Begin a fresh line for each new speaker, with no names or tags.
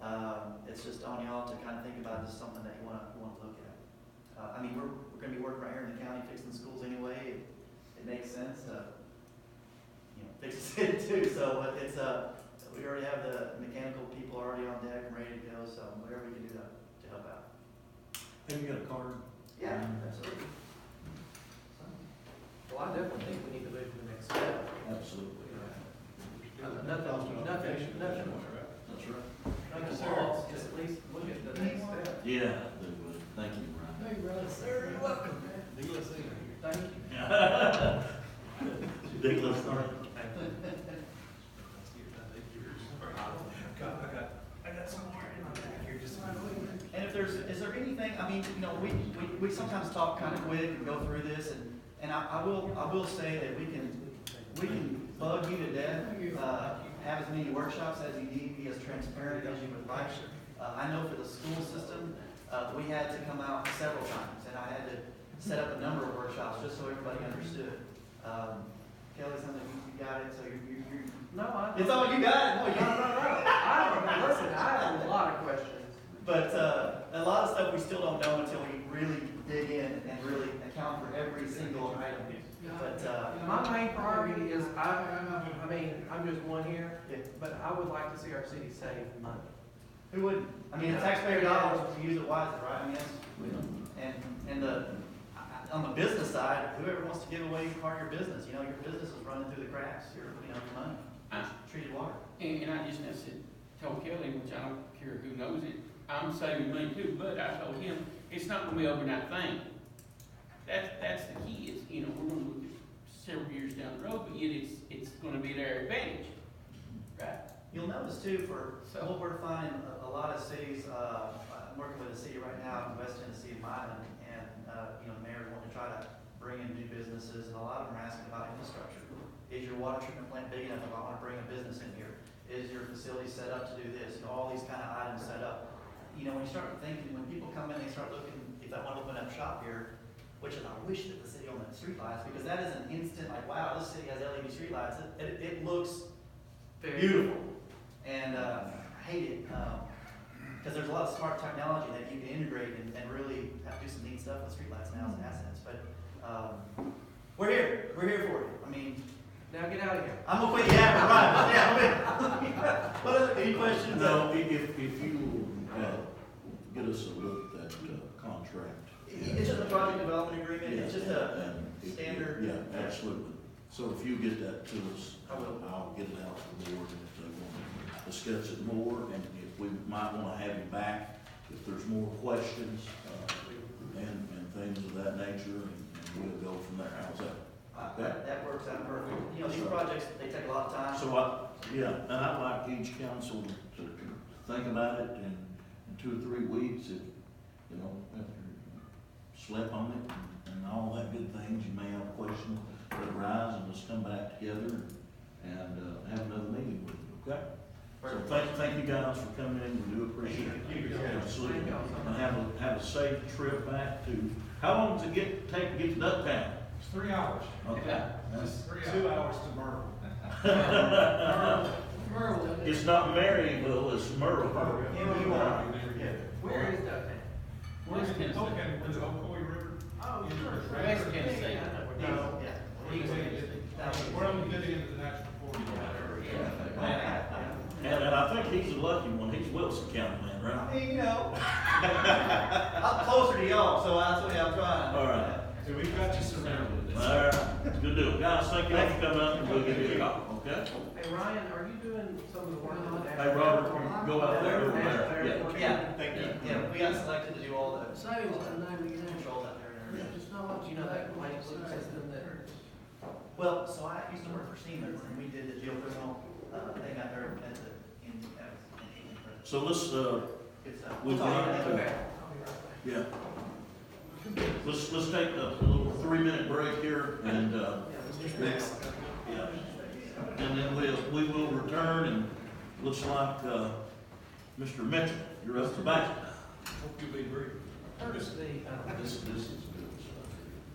Um, just on y'all to kind of think about this as something that you want to, want to look at. Uh, I mean, we're, we're going to be working right here in the county fixing schools anyway. It- It makes sense to, you know, fix it too. So but it's, uh, we already have the mechanical people already on deck and ready to go, so whatever we can do to, to help out.
Have you got a card?
Yeah, absolutely.
Well, I definitely think we need to move to the next step.
Absolutely.
Uh, Nothing, nothing, nothing.
That's right.
Nothing wrong, just at least look at the next step.
Yeah, I do. Thank you, Ryan.
Sir, you're welcome. Thank you.
Ridiculous, sorry.
And if there's, is there anything, I mean, you know, we, we, we sometimes talk kind of quick and go through this, and, and I, I will, I will say that we can, we can bug you to death, uh, have as many workshops as you need, be as transparent as you would like. Uh, I know for the school system, uh, we had to come out several times, and I had to set up a number of workshops just so everybody understood. Um, Kelly, something, you you got it, so you're, you're, you're-
No, I.
it's all, you got
No,
it,
no,
no,
no.
you,
I don't, listen, I have a lot of questions.
But uh, a lot of stuff we still don't know until we really dig in and really account for every single item. But uh,
My main priority is, I, I mean, I'm just one here,
yeah,
but I would like to see our city save money.
who wouldn't? I mean, the taxpayer dollars, we use it wisely, right? I mean, that's- and, and the, I- I- on the business side, whoever wants to give away part of your business, you know, your business is running through the cracks, your, you know, your money, treated water.
And, and I just, I said, told Kelly, which I don't care who knows it, I'm saving money too, but I told him, it's not gonna be an overnight thing. That's, that's the key, is, you know, we're gonna look at several years down the road, but yet it's, it's gonna be their advantage. Right?
You'll notice too, for what we're finding, a, a lot of cities, uh, I'm working with a city right now in West Tennessee, Milan, and, uh, you know, the mayor wanting to try to bring in new businesses, and a lot of them are asking about infrastructure. Is your water treatment plant big enough if I wanna bring a business in here? Is your facility set up to do this? You know, all these kind of items set up. You know, when you start thinking, when people come in, they start looking, if I wanna open up shop here, which is, I wish that the city owned the streetlights, because that is an instant, like, wow, this city has E LED streetlights. It, it, it looks beautiful. And uh, I hate it because there's a lot of smart technology that you can integrate and, and really have to do some neat stuff with streetlights now as assets. But um, we're here. We're here for it. I mean,
Now get out of here.
I'm gonna quit. Yeah, right. Yeah, I'm gonna. What are- any questions?
Now, i- if, if you, uh, get us a look at that uh, contract.
It's just a project development agreement. It's just a.
Yeah, and- and-
standard-
Yeah, absolutely. So if you get that to us,
I will.
I'll get it out to the board and if they want to discuss it more, and if we might want to have you back, if there's more questions, uh, and, and things of that nature, and and we'll go from there. How's that?
Uh, that, that works out perfect. You know, these projects they take a lot of time.
So I, yeah, and I'd like each council to think about it in, in two or three weeks, if, you know, after slept on it and- and all that good things, you may have questions that arise, and let's come back together and, uh, have another meeting with it, okay? So thank, thank you guys for coming in, we do appreciate it.
Thank you.
Absolutely.
Thank y'all so
And
much.
have a, have a safe trip back to, how long does it get, take to get to Ducktown?
It's three hours.
Okay, that's-
Three hours. Two hours to Myrtle.
it's not Maryville, it's Myrtle.
Yeah, you are. Yeah.
Where is Ducktown?
We're
West
in
Tennessee.
Oaken, where the Ocoee River.
Oh,
sure.
West Tennessee.
Yeah, I know where that is.
No, yeah.
We're the- we're on the good end of the national corridor.
And, and I think he's a lucky one, he's Wilson County man, right?
I mean, you know, I'm closer to y'all, so that's what I'm trying.
All right.
So we've got you surrounded.
All right, good deal, guys, thank you all for coming up, and we'll give you a call, okay?
Hey, Ryan, are you doing some of the Uh-huh. work on that?
Hey, Robert, can you go out there over there? Yeah.
Yeah,
Thank you.
yeah, we got selected to do all the
So, I mean,
controls out there and everything.
just not much, you know, that complaint system that.
Well, so I used to work for Siemens, and we did the geothermal, uh, thing out there at the, in, at, in,
So let's, uh,
it's, uh,
We'll
we'll talk about
do it.
that.
yeah. Let's, let's take a little three-minute break here, and, uh, yeah. And then we'll, we will return, and looks like, uh, Mr. Mitchell, you're up to bat.
Hope you'll be brief.
Curtis, the, um,
This, this is.